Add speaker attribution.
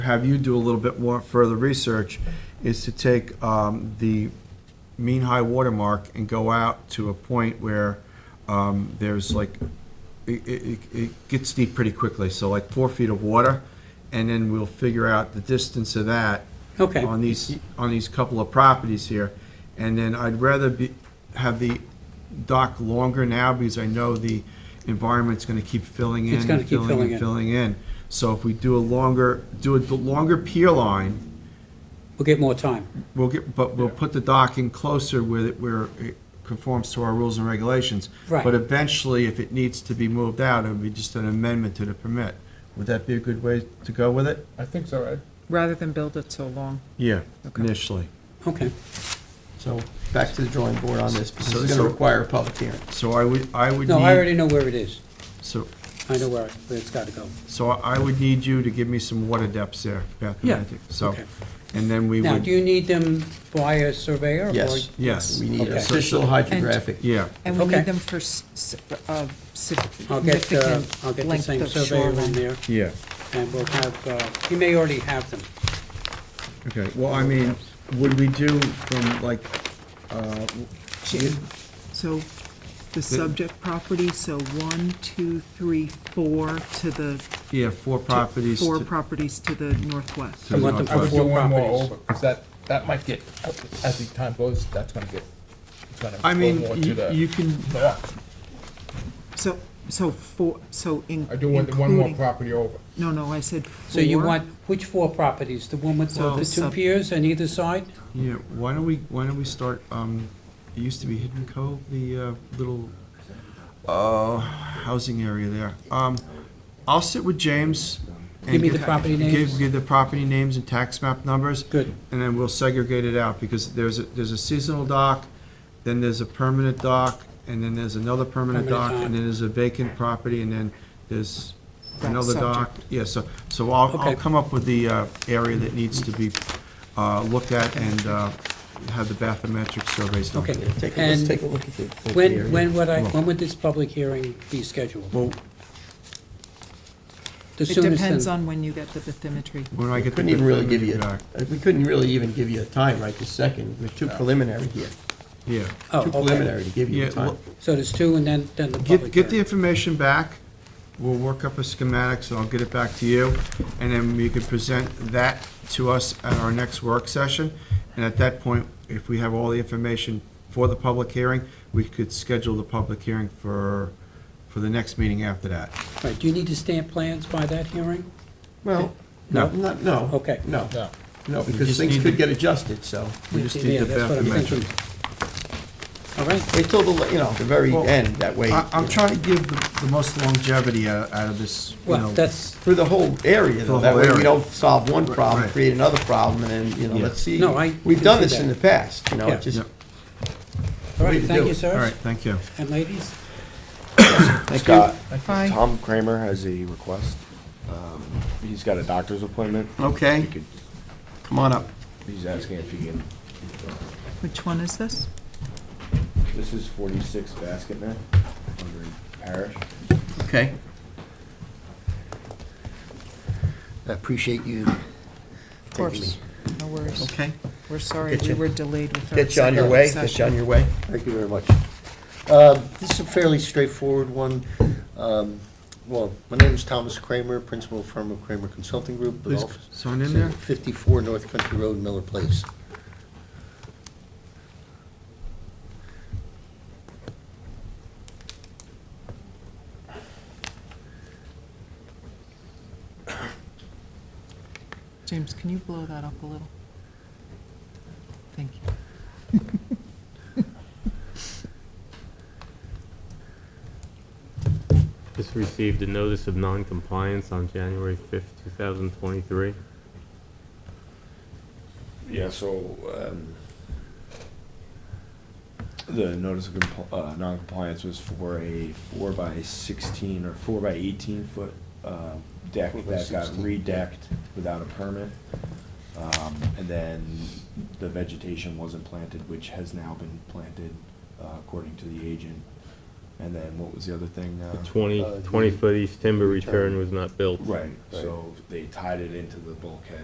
Speaker 1: have you do a little bit more further research, is to take um, the mean high water mark and go out to a point where um, there's like, it, it, it gets deep pretty quickly, so like four feet of water, and then we'll figure out the distance of that
Speaker 2: Okay.
Speaker 1: on these, on these couple of properties here. And then I'd rather be, have the dock longer now, because I know the environment's gonna keep filling in.
Speaker 2: It's gonna keep filling in.
Speaker 1: Filling in. So if we do a longer, do a d- longer pier line,
Speaker 2: We'll get more time.
Speaker 1: we'll get, but we'll put the dock in closer where, it- where it conforms to our rules and regulations.
Speaker 2: Right.
Speaker 1: But eventually, if it needs to be moved out, it would be just an amendment to the permit. Would that be a good way to go with it?
Speaker 3: I think so, Ed.
Speaker 4: rather than build it so long.
Speaker 1: Yeah,
Speaker 4: Okay.
Speaker 1: initially.
Speaker 2: Okay.
Speaker 5: So back to the drawing board on this, because
Speaker 1: So-
Speaker 5: it's going
Speaker 1: so-
Speaker 5: to require a public hearing.
Speaker 1: So I would, I would need.
Speaker 2: No, I already know where it is.
Speaker 1: So,
Speaker 2: I know where, where it's got to go.
Speaker 1: So I would need you to give me some water depths there, Beth and
Speaker 2: Yeah,
Speaker 1: Magic. So,
Speaker 2: okay.
Speaker 1: and then we
Speaker 2: Now, do
Speaker 1: would,
Speaker 2: you need them by a surveyor? or-
Speaker 5: Yes.
Speaker 1: yes,
Speaker 5: We need
Speaker 2: Okay.
Speaker 5: official hydrographic.
Speaker 1: yeah,
Speaker 4: And we
Speaker 2: Okay.
Speaker 4: need them for s- s- uh,
Speaker 2: I'll get, uh, I'll get
Speaker 4: significant
Speaker 2: the
Speaker 4: length
Speaker 2: same
Speaker 4: of
Speaker 2: surveyor in
Speaker 4: shoreline.
Speaker 2: there,
Speaker 1: yeah.
Speaker 2: and we'll have, uh, he may already have them.
Speaker 1: Okay, well, I mean, would we do from like, uh,
Speaker 4: Ju- So the subject property, so one, two, three, four to the. to
Speaker 1: yeah, four properties?
Speaker 4: Four
Speaker 1: to-
Speaker 4: properties to the northwest.
Speaker 1: to
Speaker 2: I want them
Speaker 1: the-
Speaker 3: I would do
Speaker 2: Four
Speaker 3: one more
Speaker 2: properties.
Speaker 3: over, because that, that might get, as the time goes, that's gonna get, it's gonna
Speaker 1: I
Speaker 3: go
Speaker 1: mean,
Speaker 3: more to
Speaker 1: you- you
Speaker 3: the
Speaker 1: can,
Speaker 3: north.
Speaker 4: So, so four, so in-
Speaker 3: I do one, one more
Speaker 4: including-
Speaker 3: property over.
Speaker 4: No, no, I said four.
Speaker 2: So you want, which four properties? The one with
Speaker 4: Well,
Speaker 2: the
Speaker 4: this
Speaker 2: two
Speaker 4: sub-
Speaker 2: piers on either side?
Speaker 1: yeah, why don't we, why don't we start, um, it used to be Hidden Cove, the uh, little, uh, housing area there. Um, I'll sit with James. and
Speaker 2: Give me the
Speaker 1: get-
Speaker 2: property
Speaker 1: give-
Speaker 2: names.
Speaker 1: Give the property names and tax map numbers.
Speaker 2: Good.
Speaker 1: and then we'll segregate it out, because there's, a there's a seasonal dock, then there's a permanent dock, and then there's another permanent dock,
Speaker 2: Permanent
Speaker 1: and
Speaker 2: dock.
Speaker 1: then there's a vacant property, and then there's
Speaker 4: Right,
Speaker 1: another dock. Yeah, so, so I'll, I'll
Speaker 2: Okay.
Speaker 1: come up with the uh, area that needs to be uh, looked at and uh, have the bathymetric surveys done.
Speaker 2: Okay.
Speaker 5: Take a, let's
Speaker 2: And
Speaker 5: take a look at the- at the. area.
Speaker 2: when, when would I, when would this public hearing be scheduled?
Speaker 1: Well,
Speaker 2: The
Speaker 4: It
Speaker 2: soonest
Speaker 4: depends
Speaker 2: then-
Speaker 4: on when you get the bathymetry.
Speaker 1: when do I get the
Speaker 5: Couldn't even really give you,
Speaker 1: bathymetric back?
Speaker 5: uh, we couldn't really even give you a time right this second. We're too preliminary here.
Speaker 1: Yeah,
Speaker 2: Oh,
Speaker 5: Too
Speaker 2: okay.
Speaker 5: preliminary to give you
Speaker 1: yeah,
Speaker 5: a time.
Speaker 1: well,
Speaker 2: So there's two and then, then the
Speaker 1: Get,
Speaker 2: public
Speaker 1: get the
Speaker 2: hearing.
Speaker 1: information back, we'll work up a schematic, so I'll get it back to you, and then you can present that to us at our next work session. And at that point, if we have all the information for the public hearing, we could schedule the public hearing for, for the next meeting after that.
Speaker 2: Right, do you need to stamp plans by that hearing?
Speaker 5: Well,
Speaker 1: No.
Speaker 5: no, not, no.
Speaker 2: Okay.
Speaker 5: No,
Speaker 3: No.
Speaker 5: no,
Speaker 1: just
Speaker 5: because
Speaker 1: need
Speaker 5: things could
Speaker 1: to-
Speaker 5: get adjusted, so.
Speaker 1: We just need
Speaker 2: Yeah,
Speaker 1: the
Speaker 2: that's what I'm
Speaker 1: bathymetric.
Speaker 2: thinking. All right,
Speaker 5: Wait till the, you know, the very
Speaker 1: Well,
Speaker 5: end, that way.
Speaker 1: I, I'm
Speaker 5: you know,
Speaker 1: trying to give the, the most longevity out, out of this, you
Speaker 2: well,
Speaker 1: know.
Speaker 2: that's,
Speaker 5: For the whole area,
Speaker 1: the
Speaker 5: though. That
Speaker 1: whole
Speaker 5: way we
Speaker 1: area.
Speaker 5: don't solve one problem,
Speaker 1: right.
Speaker 5: create another problem, and then, you know,
Speaker 1: Yeah.
Speaker 5: let's see.
Speaker 2: No, I
Speaker 5: We've
Speaker 2: can
Speaker 5: done
Speaker 2: see
Speaker 5: this
Speaker 2: that.
Speaker 5: in the past, you know,
Speaker 2: Yeah.
Speaker 5: it just
Speaker 1: Yep.
Speaker 2: all
Speaker 5: way
Speaker 2: right, thank
Speaker 5: to do
Speaker 2: you,
Speaker 5: it.
Speaker 1: All
Speaker 2: sirs
Speaker 1: right, thank you.
Speaker 2: and ladies.
Speaker 6: Scott,
Speaker 4: Bye.
Speaker 6: Tom Kramer has a request. Um, He's got a doctor's appointment.
Speaker 5: Okay.
Speaker 6: He could-
Speaker 5: Come on up.
Speaker 6: He's asking if he can,
Speaker 4: Which one is this?
Speaker 6: this is 46 Basket Net, under Parish.
Speaker 5: Okay.
Speaker 7: I appreciate you
Speaker 4: Of
Speaker 7: taking me.
Speaker 4: course, no worries.
Speaker 5: Okay.
Speaker 4: We're sorry
Speaker 5: Get
Speaker 4: we
Speaker 5: you-
Speaker 4: were delayed with our.
Speaker 5: Get you on your way, get you
Speaker 4: session.
Speaker 5: on your way.
Speaker 7: Thank you very much. Um, This is a fairly straightforward one. Um, Well, my name is Thomas Kramer, principal firm of Kramer Consulting Group. with
Speaker 1: Please
Speaker 7: office-
Speaker 1: sign in there.
Speaker 7: 54 North Country Road, Miller Place.
Speaker 4: James, can you blow that up a little? Thank you.
Speaker 8: Just received a notice of non-compliance on January 5th, 2023.
Speaker 6: Yeah, so um, the notice of compl- uh, non-compliance was for a four by 16 or four by 18 foot uh, deck
Speaker 7: Four by
Speaker 6: that got
Speaker 7: 16.
Speaker 6: redecked without a permit. Um, And then the vegetation wasn't planted, which has now been planted uh, according to the agent. And then what was the other thing now?
Speaker 8: Twenty,
Speaker 7: Uh, the-
Speaker 8: twenty-foot east timber return was not built.
Speaker 6: Right, so they tied it into the bulkhead